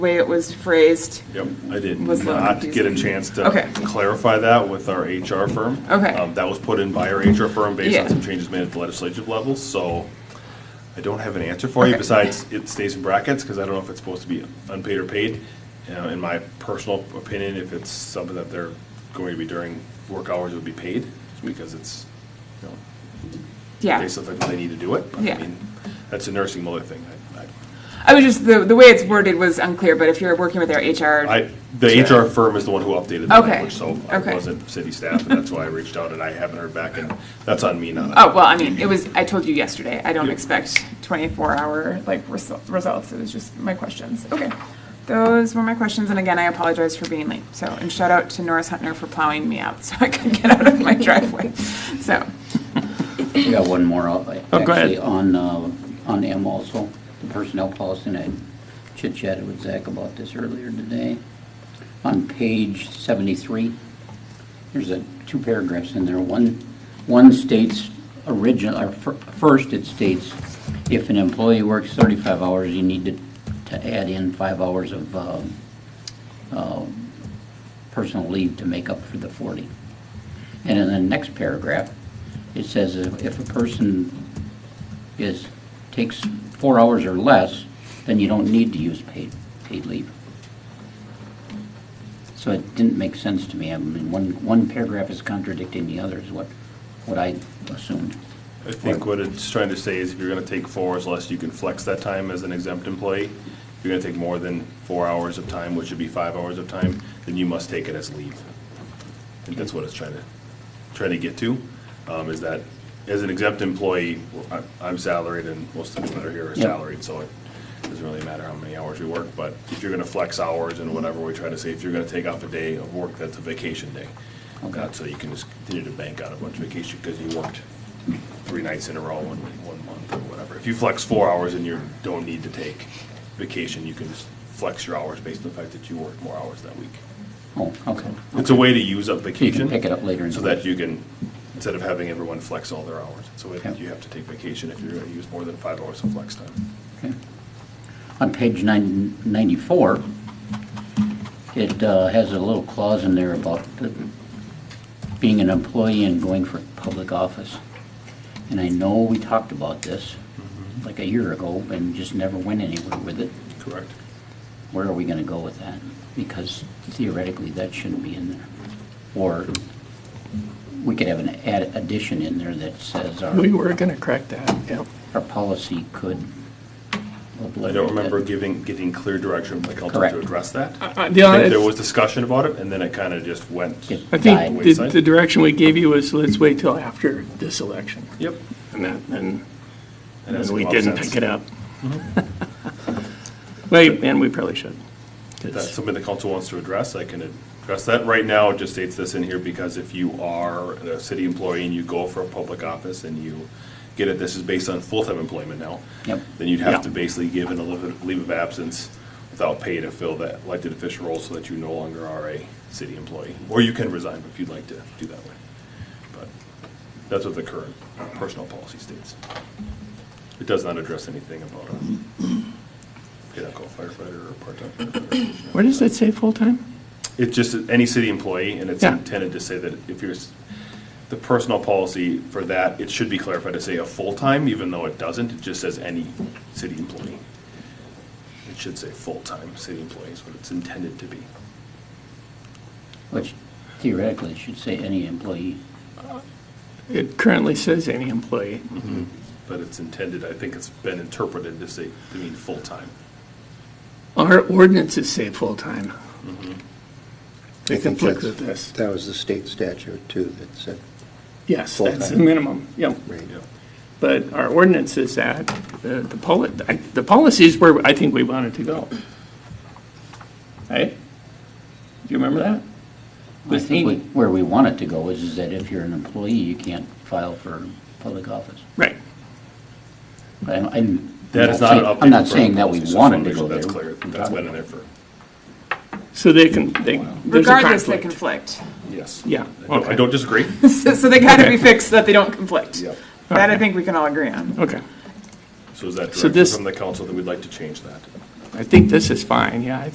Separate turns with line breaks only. way it was phrased.
Yep, I did
Was a little
not get a
confusing.
chance
Okay.
to clarify that with our HR firm.
Okay.
Um, That was put in by our HR firm based
Yeah.
on some changes made at the legislative level, so I don't have an answer for you
Okay.
besides it stays in brackets because I don't know if it's supposed to be unpaid or paid. You know, In my personal opinion, if it's something that they're going to be during work hours, it would be paid because it's, you know,
Yeah.
based on the fact that they need to do it. But,
Yeah.
I mean, that's a nursing mother thing. I- I-
I was just, the, the way it's worded was unclear, but if you're working with our HR.
I, the HR firm is the one who updated the
Okay,
language, so I
okay.
wasn't city staff, and that's why I reached out, and I haven't heard back, and that's on me, not on.
Oh, well, I mean, it was, I told you yesterday, I don't
Yeah.
expect twenty-four hour like resul- results. It was just my questions. Okay. Those were my questions. And again, I apologize for being late. So, and shout out to Norris Hunter for plowing me out so I could get out of my driveway. So,
We got one more, uh,
Oh, go ahead.
actually, on, uh, on M also, the personnel policy, and I chit chatted with Zach about this earlier today. On page seventy-three, there's a, two paragraphs in there. One, one states original, or fir- first it states, if an employee works thirty-five hours, you need to, to add in five hours of, uh, uh, personal leave to make up for the forty. And in the next paragraph, it says if if a person is, takes four hours or less, then you don't need to use paid, paid leave. So it didn't make sense to me. I mean, one, one paragraph is contradicting the other is what, what I assumed.
I think what it's trying to say is if you're gonna take four hours less, you can flex that time as an exempt employee. If you're gonna take more than four hours of time, which would be five hours of time, then you must take it as leave. I think that's what it's trying to, trying to get to, um, is that as an exempt employee, I- I'm salaried and most of the people that are here are
Yep.
salaried, so it doesn't really matter how many hours we work, but if you're gonna flex hours and whatever, we try to say, if you're gonna take off a day of work, that's a vacation day.
Okay.
Not so you can just continue to bank out a bunch of vacation because you worked three nights in a row in one month or whatever. If you flex four hours and you don't need to take vacation, you can just flex your hours based on the fact that you worked more hours that week.
Oh, okay.
It's a way to use up
So you
vacation.
can pick it up later in the
So that you can, instead of having everyone flex all their hours, it's a way that
Okay.
you have to take vacation if you're gonna use more than five hours of flex time.
Okay. On page nine- 94, it uh, has a little clause in there about the- being an employee and going for public office. And I know we talked about this
Mm-hmm.
like a year ago and just never went anywhere with it.
Correct.
Where are we going to go with that? Because theoretically, that shouldn't be in there. Or we could have an add- addition in there that says our,
We were gonna correct that, yeah.
our policy could.
I don't remember giving, getting clear direction, like, how
Correct.
to address that. I
I
think there was discussion about it, and then it kind of just went.
It
I
died.
think the,
Wayside.
the direction we gave you was, let's wait till after this election.
Yep.
And that, and,
And that's
and we
what
didn't
sense. Mm-hmm.
pick it up. Wait, and we probably should. 'cause-
If that's something the council wants to address, I can address that. Right now, it just states this in here because if you are a city employee and you go for a public office and you get it, this is based on full-time employment now.
Yep.
Then you'd have to
Yeah.
basically give an leave leave of absence without pay to fill that elected official role so that you no longer are a city employee. Or you can resign if you'd like to do that way. But that's what the current personnel policy states. It does not address anything about a paid-out firefighter or part-time firefighter.
Where does that say full-time?
It's just any city employee, and it's
Yeah.
intended to say that if you're, s- the personal policy for that, it should be clarified to say a full-time, even though it doesn't, it just says any city employee. It should say full-time city employee is what it's intended to be.
Which theoretically should say any employee.
It currently says any employee.
But it's intended, I think it's been interpreted to say, to mean full-time.
Our ordinances say full-time. They
I think
conflict with
that's-
this.
That was the state statute too that said,
Yes, that's the
Full-time.
minimum, yeah.
right,
Yeah.
But our ordinance is that, the, the poli, I- the policies where I think we wanted to go. Right? Do you remember that?
I
With
think we-
Haney?
where we want it to go is, is that if you're an employee, you can't file for public office.
Right.
But I'm, I'm.
That is not an
saying-
update.
I'm not
for
saying that we
policy, so I just wanna
wanted
make
to
sure
go there.
That's clear,
We
that's
got
been in
it.
there for,
So they can, they, there's a
regardless, they
conflict.
conflict.
yes.
Yeah,
I don't- I
okay.
don't disagree.
So, so they gotta
Okay.
be fixed so that they don't conflict.
Yep.
That I think we can all agree on.
Okay.
So is that
So
direction
this-
from the council that we'd like to change that?
I think this is fine, yeah. I